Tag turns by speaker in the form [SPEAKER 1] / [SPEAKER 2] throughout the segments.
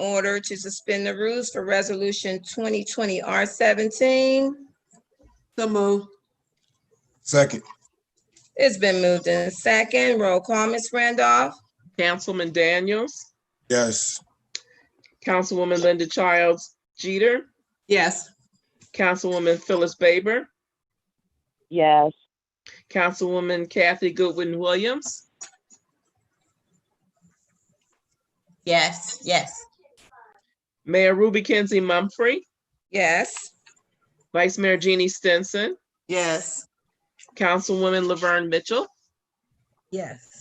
[SPEAKER 1] order to suspend the rules for Resolution 2020 R-17.
[SPEAKER 2] So moved.
[SPEAKER 3] Second,
[SPEAKER 1] It's been moved in second. Roll call, Ms. Randolph.
[SPEAKER 4] Councilman Daniels,
[SPEAKER 3] yes.
[SPEAKER 4] Councilwoman Linda Childs Jeter,
[SPEAKER 2] Yes.
[SPEAKER 4] Councilwoman Phyllis Baber,
[SPEAKER 5] yes,
[SPEAKER 4] Councilwoman Kathy Goodwin Williams,
[SPEAKER 6] yes, yes,
[SPEAKER 4] Mayor Ruby Kenzie Mumfree,
[SPEAKER 1] Yes.
[SPEAKER 4] Vice Mayor Jeannie Stinson,
[SPEAKER 2] Yes.
[SPEAKER 4] Councilwoman Laverne Mitchell.
[SPEAKER 6] yes.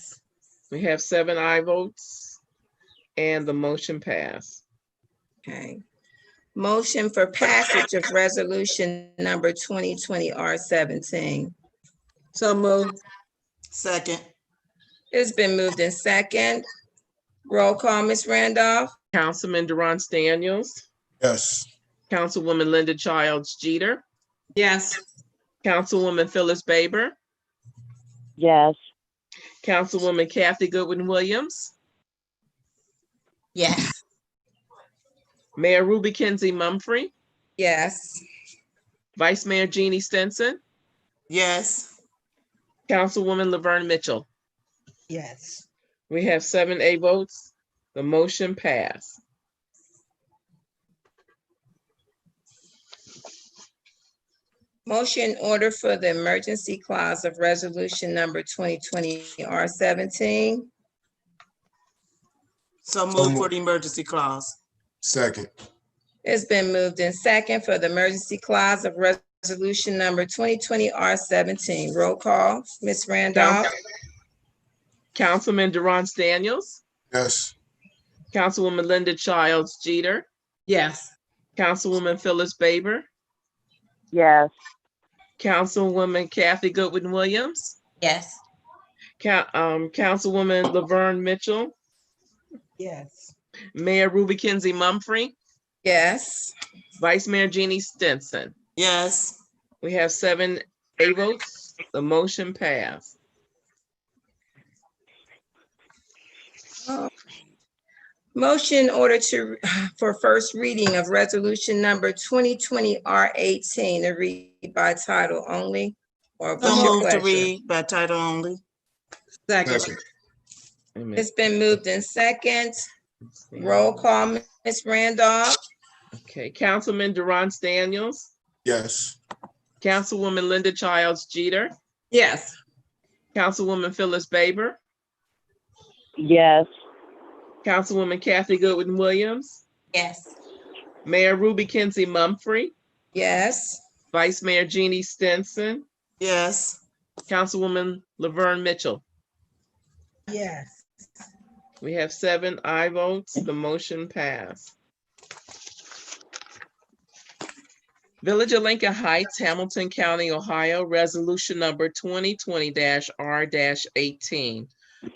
[SPEAKER 4] We have seven aye votes and the motion passed.
[SPEAKER 1] Okay. Motion for passage of Resolution Number 2020 R-17.
[SPEAKER 2] So moved. Second.
[SPEAKER 1] It's been moved in second. Roll call, Ms. Randolph.
[SPEAKER 4] Councilman Durance Daniels,
[SPEAKER 3] Yes.
[SPEAKER 4] Councilwoman Linda Childs Jeter,
[SPEAKER 2] Yes.
[SPEAKER 4] Councilwoman Phyllis Baber,
[SPEAKER 5] yes,
[SPEAKER 4] Councilwoman Kathy Goodwin Williams,
[SPEAKER 6] Yes,
[SPEAKER 4] Mayor Ruby Kenzie Mumfree,
[SPEAKER 1] Yes.
[SPEAKER 4] Vice Mayor Jeannie Stinson,
[SPEAKER 2] Yes.
[SPEAKER 4] Councilwoman Laverne Mitchell.
[SPEAKER 6] yes.
[SPEAKER 4] We have seven A votes. The motion passed.
[SPEAKER 1] Motion in order for the emergency clause of Resolution Number 2020 R-17.
[SPEAKER 2] So
[SPEAKER 3] moved for
[SPEAKER 2] the emergency clause.
[SPEAKER 3] Second,
[SPEAKER 1] It's been moved in second for the emergency clause of resolution number twenty twenty R seventeen. Roll call, Ms. Randolph.
[SPEAKER 4] Councilman Durance Daniels,
[SPEAKER 3] yes.
[SPEAKER 4] Councilwoman Linda Childs Jeter,
[SPEAKER 2] Yes.
[SPEAKER 4] Councilwoman Phyllis Baber,
[SPEAKER 5] yes,
[SPEAKER 4] Councilwoman Kathy Goodwin Williams,
[SPEAKER 6] Yes,
[SPEAKER 4] Coun- um, Councilwoman Laverne Mitchell,
[SPEAKER 6] yes.
[SPEAKER 4] Mayor Ruby Kenzie Mumfree,
[SPEAKER 1] Yes,
[SPEAKER 4] Vice Mayor Jeannie Stinson.
[SPEAKER 2] Yes.
[SPEAKER 4] We have seven A votes. The motion passed.
[SPEAKER 1] motion in order to, for first reading of resolution number twenty twenty R eighteen, to read by title only. Or what's your pleasure?
[SPEAKER 2] by title only.
[SPEAKER 3] Second,
[SPEAKER 4] Wait a minute.
[SPEAKER 1] It's been moved in second. Roll call, Ms. Randolph.
[SPEAKER 4] Okay, Councilman Durance Daniels,
[SPEAKER 3] yes.
[SPEAKER 4] Councilwoman Linda Childs Jeter,
[SPEAKER 2] Yes.
[SPEAKER 4] Councilwoman Phyllis Baber,
[SPEAKER 5] yes,
[SPEAKER 4] Councilwoman Kathy Goodwin Williams,
[SPEAKER 6] Yes,
[SPEAKER 4] Mayor Ruby Kenzie Mumfree,
[SPEAKER 1] Yes,
[SPEAKER 4] Vice Mayor Jeannie Stinson,
[SPEAKER 2] Yes.
[SPEAKER 4] Councilwoman Laverne Mitchell.
[SPEAKER 6] yes.
[SPEAKER 4] We have seven aye votes. The motion passed. Village of Lincoln Heights, Hamilton County, Ohio, Resolution Number twenty twenty R eighteen.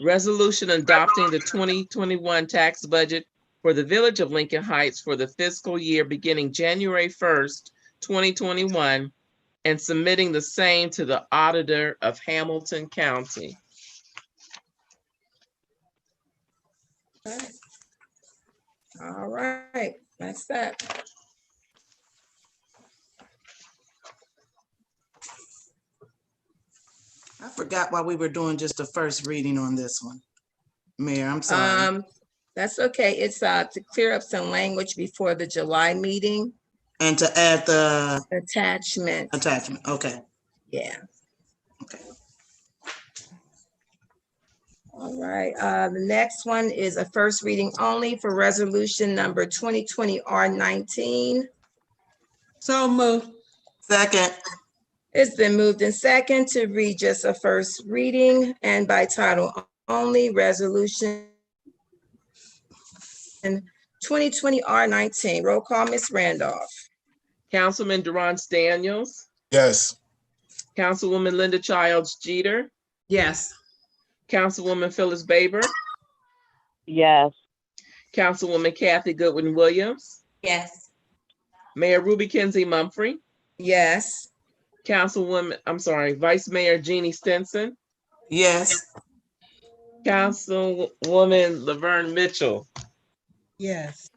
[SPEAKER 4] Resolution adopting the twenty twenty-one tax budget for the Village of Lincoln Heights for the fiscal year beginning January first, twenty twenty-one, and submitting the same to the auditor of Hamilton County.
[SPEAKER 1] all right, that's that.
[SPEAKER 7] I forgot why we were doing just the first reading on this one. Mayor, I'm sorry.
[SPEAKER 1] Um, that's okay. It's, uh, to clear up some language before the July meeting.
[SPEAKER 7] And to add the
[SPEAKER 1] Attachment,
[SPEAKER 7] attachment, okay.
[SPEAKER 1] yeah. All right, uh, the next one is a first reading only for resolution number twenty twenty R nineteen.
[SPEAKER 2] So moved.
[SPEAKER 7] Second,
[SPEAKER 1] It's been moved in second to read just a first reading and by title only, resolution and twenty twenty R nineteen. Roll call, Ms. Randolph.
[SPEAKER 4] Councilman Durance Daniels,
[SPEAKER 3] Yes.
[SPEAKER 4] Councilwoman Linda Childs Jeter,
[SPEAKER 2] Yes.
[SPEAKER 4] Councilwoman Phyllis Baber,
[SPEAKER 5] yes,
[SPEAKER 4] Councilwoman Kathy Goodwin Williams,
[SPEAKER 6] Yes,
[SPEAKER 4] Mayor Ruby Kenzie Mumfree,
[SPEAKER 1] Yes.
[SPEAKER 4] Councilwoman, I'm sorry, Vice Mayor Jeannie Stinson,
[SPEAKER 7] yes,
[SPEAKER 4] Councilwoman Laverne Mitchell,
[SPEAKER 6] yes.